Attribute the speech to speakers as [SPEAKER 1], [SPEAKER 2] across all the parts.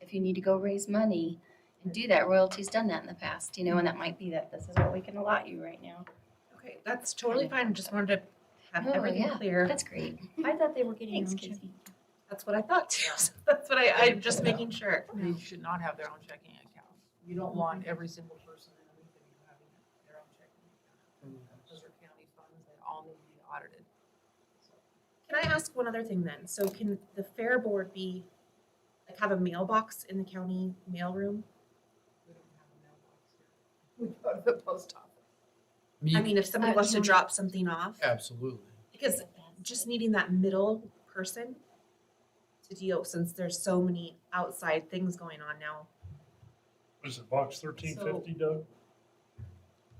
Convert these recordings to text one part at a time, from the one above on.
[SPEAKER 1] if you need to go raise money and do that, royalty's done that in the past, you know, and that might be that this is what we can allot you right now.
[SPEAKER 2] Okay, that's totally fine. Just wanted to have
[SPEAKER 1] Oh,
[SPEAKER 2] everything
[SPEAKER 1] yeah.
[SPEAKER 2] clear.
[SPEAKER 1] That's great.
[SPEAKER 3] I thought they were getting
[SPEAKER 1] Thanks,
[SPEAKER 3] their own
[SPEAKER 1] Jesse.
[SPEAKER 3] checking.
[SPEAKER 2] That's what I thought too. So That's what I, I'm just making sure.
[SPEAKER 4] They should not have their own checking account. You don't want every single person in Lincoln having their own checking account. Those are county funds that all need to be audited.
[SPEAKER 2] Can I ask one other thing then? So can the fair board be, like have a mailbox in the county mailroom?
[SPEAKER 4] We don't have a mailbox here. We go to the post office.
[SPEAKER 2] I mean, if somebody
[SPEAKER 1] Uh,
[SPEAKER 2] wants to
[SPEAKER 1] yeah.
[SPEAKER 2] drop something off,
[SPEAKER 5] Absolutely.
[SPEAKER 2] because just needing that middle person to deal, since there's so many outside things going on now.
[SPEAKER 6] What is it box thirteen fifty, Doug?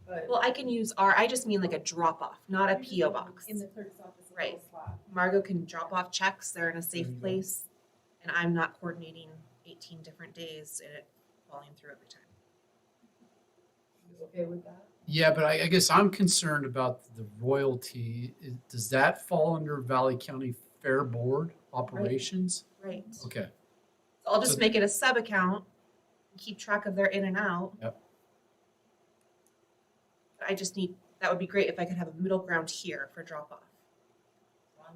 [SPEAKER 4] But
[SPEAKER 2] Well, I can use our, I just mean like a drop off, not a PO box.
[SPEAKER 4] in the clerk's office,
[SPEAKER 2] Right.
[SPEAKER 4] little slot.
[SPEAKER 2] Margot can drop off checks, they're in a
[SPEAKER 6] There you
[SPEAKER 2] safe
[SPEAKER 6] go.
[SPEAKER 2] place, and I'm not coordinating eighteen different days and it falling through every time.
[SPEAKER 4] You okay with that?
[SPEAKER 5] Yeah, but I, I guess I'm concerned about the royalty. Is- Does that fall under Valley County Fair Board operations?
[SPEAKER 2] Right.
[SPEAKER 5] Okay,
[SPEAKER 2] So I'll just
[SPEAKER 5] So-
[SPEAKER 2] make it a sub account, and keep track of their in and out.
[SPEAKER 5] Yep.
[SPEAKER 2] I just need, that would be great if I could have a middle ground here for drop off.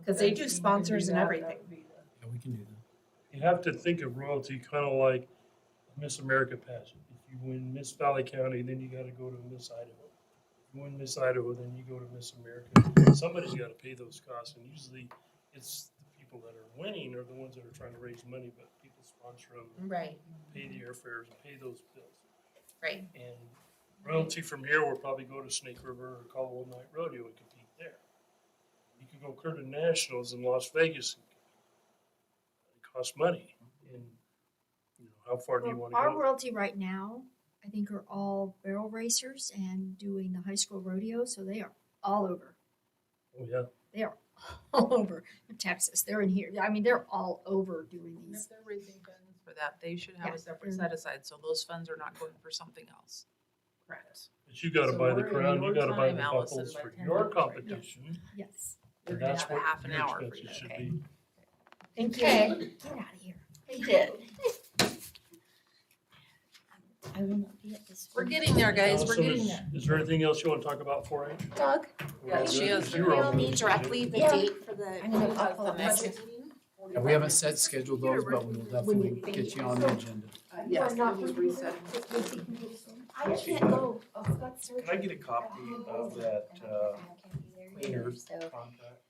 [SPEAKER 2] 'Cause they do sponsors and everything.
[SPEAKER 5] yeah, we can do that.
[SPEAKER 6] You have to think of royalty kind of like Miss America pageant. If you win Miss Valley County, then you gotta go to Miss Idaho. If you win Miss Idaho, then you go to Miss America. Somebody's gotta pay those costs, and usually it's the people that are winning are the ones that are trying to raise money, but people sponsor them,
[SPEAKER 2] Right.
[SPEAKER 6] pay the airfares, and pay those bills.
[SPEAKER 2] Right.
[SPEAKER 6] And royalty from here will probably go to Snake River or Caldwell Night Rodeo and compete there. You could go Curtin Nationals in Las Vegas and compete. It costs money and, you know, how far do you
[SPEAKER 3] Well,
[SPEAKER 6] wanna
[SPEAKER 3] Our
[SPEAKER 6] go?
[SPEAKER 3] royalty right now, I think are all barrel racers and doing the high school rodeo, so they are all over.
[SPEAKER 6] Oh, yeah,
[SPEAKER 3] They are all over Texas. They're in here. I mean, they're all over doing
[SPEAKER 4] And
[SPEAKER 3] these.
[SPEAKER 4] if they're raising funds for that, they should have
[SPEAKER 3] Yeah.
[SPEAKER 4] a separate set aside, so those funds are not going for something else. Correct.
[SPEAKER 6] but you gotta
[SPEAKER 4] So
[SPEAKER 6] buy the
[SPEAKER 4] we're in
[SPEAKER 6] crown, you
[SPEAKER 4] your
[SPEAKER 6] gotta buy the
[SPEAKER 4] time, Allison,
[SPEAKER 6] buckles
[SPEAKER 4] by
[SPEAKER 6] for
[SPEAKER 4] 10
[SPEAKER 6] your
[SPEAKER 4] minutes right now.
[SPEAKER 6] competition.
[SPEAKER 3] Yes.
[SPEAKER 4] We're
[SPEAKER 6] And
[SPEAKER 4] gonna
[SPEAKER 6] that's
[SPEAKER 4] have a
[SPEAKER 6] what
[SPEAKER 4] half an
[SPEAKER 6] your
[SPEAKER 4] hour for
[SPEAKER 6] expenses
[SPEAKER 4] you.
[SPEAKER 6] should
[SPEAKER 1] okay.
[SPEAKER 6] be.
[SPEAKER 2] Thank you.
[SPEAKER 1] Okay,
[SPEAKER 3] Get out of here.
[SPEAKER 1] we did. I will not be at this.
[SPEAKER 4] We're
[SPEAKER 1] one.
[SPEAKER 4] getting there, guys, we're
[SPEAKER 6] Allison,
[SPEAKER 4] getting
[SPEAKER 6] is-
[SPEAKER 4] there.
[SPEAKER 6] Is there anything else you wanna talk about for it?
[SPEAKER 1] Doug,
[SPEAKER 4] Yeah, she is
[SPEAKER 6] You're
[SPEAKER 4] very-
[SPEAKER 6] all
[SPEAKER 7] We'll
[SPEAKER 6] good.
[SPEAKER 7] need directly the
[SPEAKER 1] Yeah.
[SPEAKER 7] date for the.
[SPEAKER 1] I'm gonna
[SPEAKER 7] of
[SPEAKER 1] follow
[SPEAKER 7] the
[SPEAKER 1] up.
[SPEAKER 7] budget meeting.
[SPEAKER 5] Yeah, we haven't set scheduled those, but we'll definitely get you on the agenda.
[SPEAKER 7] Yes,
[SPEAKER 4] it was reset.
[SPEAKER 7] I can't go,
[SPEAKER 1] Oh,
[SPEAKER 7] I've got surgery.
[SPEAKER 8] Can I get a copy of that, uh, cleaner
[SPEAKER 1] So,
[SPEAKER 8] contract?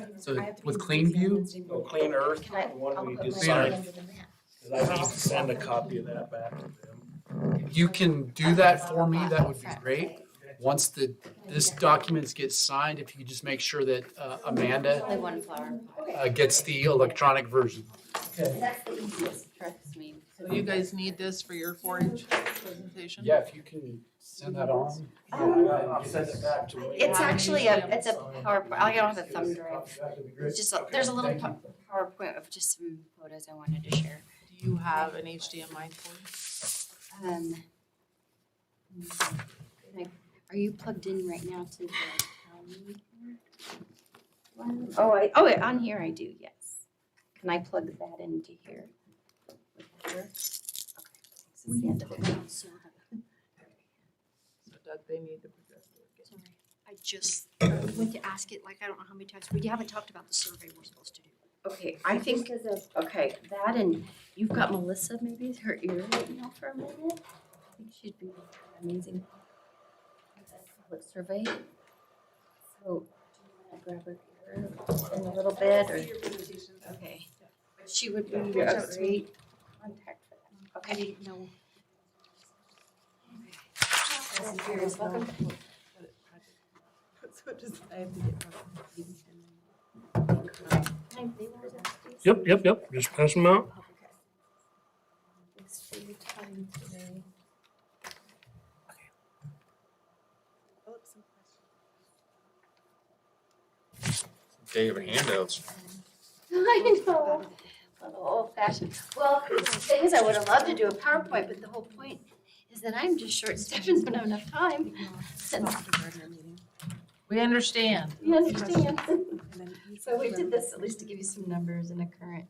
[SPEAKER 1] um,
[SPEAKER 5] So with Cleanview,
[SPEAKER 8] Oh, Clean Earth,
[SPEAKER 1] Can I-
[SPEAKER 8] the one
[SPEAKER 1] I'll
[SPEAKER 8] we
[SPEAKER 1] put
[SPEAKER 8] just
[SPEAKER 1] my
[SPEAKER 8] signed,
[SPEAKER 1] hand in the map.
[SPEAKER 8] because I need to send a copy of that back to them.
[SPEAKER 5] you can do that for me, that would be great. Once the, this documents gets signed, if you could just make sure that uh, Amanda
[SPEAKER 1] Only one flower.
[SPEAKER 5] uh, gets the electronic version.
[SPEAKER 1] That's the easiest, trust me.
[SPEAKER 4] So you guys need this for your four H presentation?
[SPEAKER 5] Yeah, if you can send that on.
[SPEAKER 8] Yeah, I'll I'll send it back to Wayne.
[SPEAKER 1] It's actually a, it's a PowerPoint, I don't have a thumb drive. It's just, a- there's a little
[SPEAKER 5] Thank you.
[SPEAKER 1] po- PowerPoint of just some photos I wanted to share.
[SPEAKER 4] Do you have an HDMI cord?
[SPEAKER 1] Um, like, Are you plugged in right now to the county? one? Oh, I, oh, yeah, on here I do, yes. Can I plug that into here? Would that work? Okay, thanks. It's the end of it.
[SPEAKER 4] So Doug, they need the projector.
[SPEAKER 3] Sorry. I just uh, went to ask it like I don't know how many times. We haven't talked about the survey we're supposed to do.
[SPEAKER 1] Okay, I think, okay, that and you've got Melissa maybe, her ear right now for a minute. I think she'd be amazing. That's a Public survey. So, do you want to grab her ear in a little bit or? Okay. But She would be a great contact for that.
[SPEAKER 3] I
[SPEAKER 1] Okay.
[SPEAKER 3] didn't know
[SPEAKER 4] So just, I have to get.
[SPEAKER 6] Yep, yep, yep, just pass them out.
[SPEAKER 1] Thanks for your time today.
[SPEAKER 7] Day of handouts.
[SPEAKER 1] I know. A little old fashioned. Well, the thing is, I would have loved to do a PowerPoint, but the whole point is that I'm just short staffed and don't have enough time. And
[SPEAKER 4] We understand.
[SPEAKER 1] You understand? So we did this at least to give you some numbers and a current